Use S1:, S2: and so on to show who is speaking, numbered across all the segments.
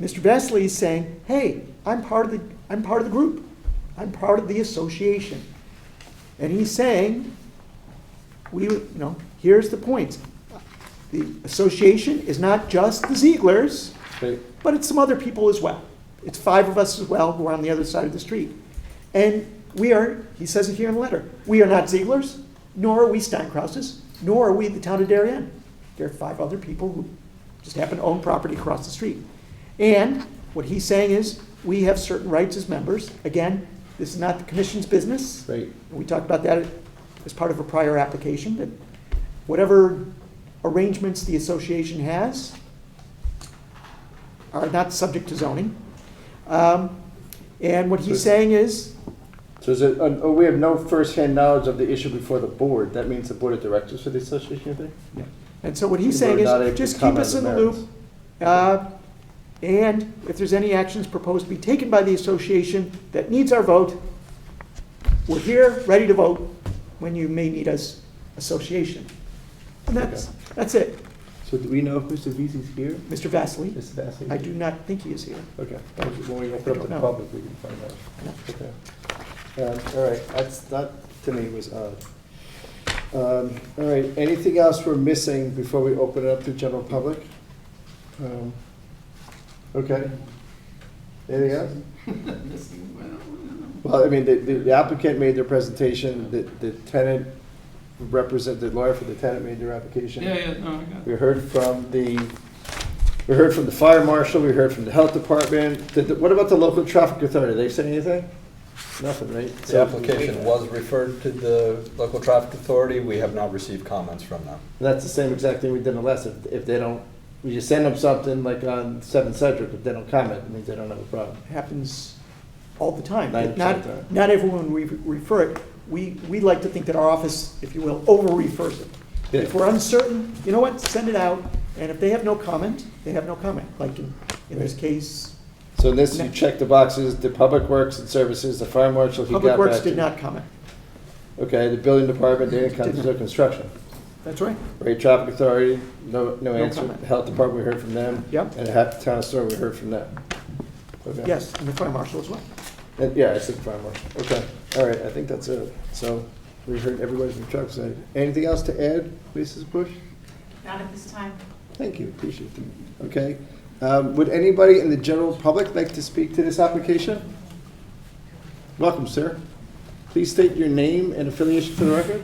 S1: Mr. Vesely is saying, hey, I'm part of the, I'm part of the group. I'm part of the association. And he's saying, we, you know, here's the point. The association is not just the Ziegler's,
S2: Great.
S1: but it's some other people as well. It's five of us as well who are on the other side of the street. And we are, he says it here in the letter, we are not Ziegler's, nor are we Steinkrauses, nor are we the town of Darien. There are five other people who just happen to own property across the street. And what he's saying is, we have certain rights as members. Again, this is not the commission's business.
S2: Great.
S1: We talked about that as part of a prior application, that whatever arrangements the association has are not subject to zoning. Um, And what he's saying is,
S2: So is it, uh, oh, we have no firsthand knowledge of the issue before the board. That means the board of directors for the association, you think?
S1: and so what he's saying is,
S2: We're not able to
S1: just keep us in
S2: comment
S1: the
S2: on
S1: loop. uh, And if there's any actions proposed to be taken by the association that needs our vote, we're here, ready to vote when you may need us, association. And that's, that's it,
S2: So do we know if Mr. Veazey's here?
S1: Mr. Vasily.
S2: Mr. Vassie?
S1: I do not think he is here.
S2: Okay, thank you. When we open up the
S1: No.
S2: public, we can find out.
S1: No.
S2: Okay. Um, All right, that's, that to me was odd. Um, All right, anything else we're missing before we open it up to general public? Um, Okay. Anything else? Well, I mean, the- the the applicant made their presentation, the the tenant represent the lawyer for the tenant made their application.
S3: Yeah, yeah, no, I got
S2: We
S3: it.
S2: heard from the, we heard from the fire marshal, we heard from the health department. Did the- What about the local traffic authority? They say anything? Nothing, right?
S4: The application was referred to the local traffic authority. We have not received comments from them.
S2: That's the same exact thing we did in the last, if, if they don't, we just send them something like on Seven Cedric, if they don't comment, it means they don't have a problem.
S1: happens all the time.
S2: Nine percent of the
S1: Not,
S2: time.
S1: not everyone we refer it, we, we like to think that our office, if you will, over-refers it.
S2: Yeah.
S1: If we're uncertain, you know what, send it out, and if they have no comment, they have no comment, like in, in this
S2: Right.
S1: case,
S2: So in this, you check the boxes, the public works and services, the fire marshal, he got
S1: Public Works
S2: back to
S1: did
S2: you.
S1: not comment.
S2: Okay, the building department, they didn't
S1: Did
S2: comment,
S1: not.
S2: there's no construction.
S1: That's right.
S2: Right, traffic authority, no, no
S1: No
S2: answer.
S1: comment.
S2: The Health department, we heard from them.
S1: Yep.
S2: And half the town store, we heard from them. Okay.
S1: Yes, and the fire marshal as well.
S2: And- Yeah, I said fire marshal. Okay, all right, I think that's it. So we heard everybody from Chuck side. Anything else to add, Mrs. Bush?
S5: Not at this time.
S2: Thank you, appreciate it. Okay. Um, Would anybody in the general public like to speak to this application? Welcome, sir. Please state your name and affiliation for the record.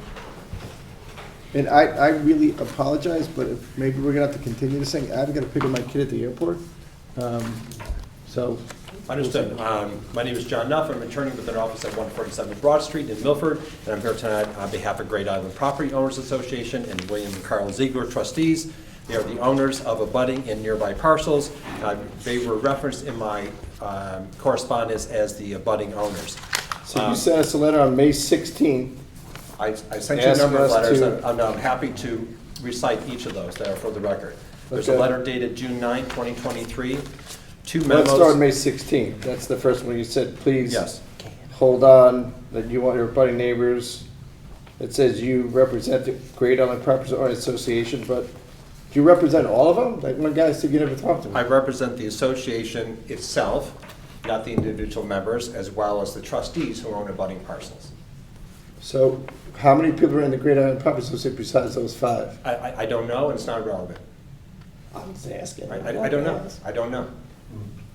S2: And I, I really apologize, but if- maybe we're gonna have to continue this thing. I've gotta pick up my kid at the airport. Um, So,
S6: Understood. Um, My name is John Nuff. I'm an attorney with an office at 147 Broad Street in Milford, and I'm here tonight on behalf of Great Island Property Owners Association and William and Carl Ziegler trustees. They are the owners of abutting and nearby parcels. Uh, They were referenced in my um, correspondence as the abutting owners.
S2: so you
S6: Um,
S2: sent us a letter on May 16th.
S6: I, I sent you a
S2: Ask
S6: number
S2: us
S6: of letters,
S2: to-
S6: and I'm I'm happy to recite each of those that are for the record. There's a
S2: Okay.
S6: letter dated June 9, 2023, two memos.
S2: Let's start on May 16th. That's the first one you said, please.
S6: Yes.
S2: Hold on, that you want your budding neighbors. It says you represent the Great Island Property Owners Association, but do you represent all of them? Like one guy said you never talked to
S6: I
S2: him.
S6: represent the association itself, not the individual members, as well as the trustees who own abutting parcels.
S2: So how many people are in the Great Island Property Association besides those five?
S6: I, I, I don't know, and it's not relevant.
S2: I'm just asking.
S6: I, I I don't know, I don't know.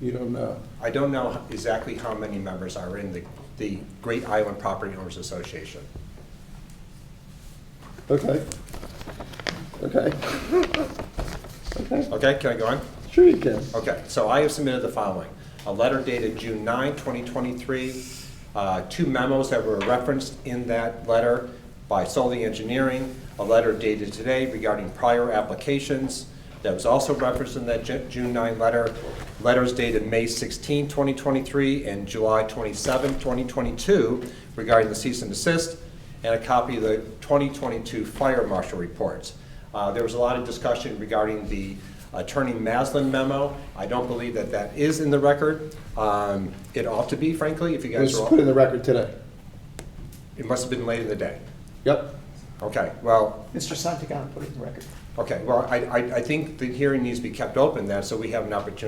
S2: You don't know.
S6: I don't know exactly how many members are in the, the Great Island Property Owners Association.
S2: Okay. Okay. Okay.
S6: Okay, can I go on?
S2: Sure you can.
S6: Okay, so I have submitted the following. A letter dated June 9, 2023, uh, two memos that were referenced in that letter by Solely Engineering, a letter dated today regarding prior applications that was also referenced in that Ju- June 9 letter, letters dated May 16, 2023, and July 27, 2022 regarding the cease and desist, and a copy of the 2022 fire marshal reports. Uh, There was a lot of discussion regarding the Attorney Maslin memo. I don't believe that that is in the record. Um, It ought to be, frankly, if you
S2: Let's
S6: guys are,
S2: just put it in
S6: all-
S2: the record today.
S6: it must have been late in the day.
S2: Yep.
S6: Okay, well,
S1: Mr. Santagan put it in the record.
S6: okay, well, I, I I think the hearing needs to be kept open then, so we have an opportunity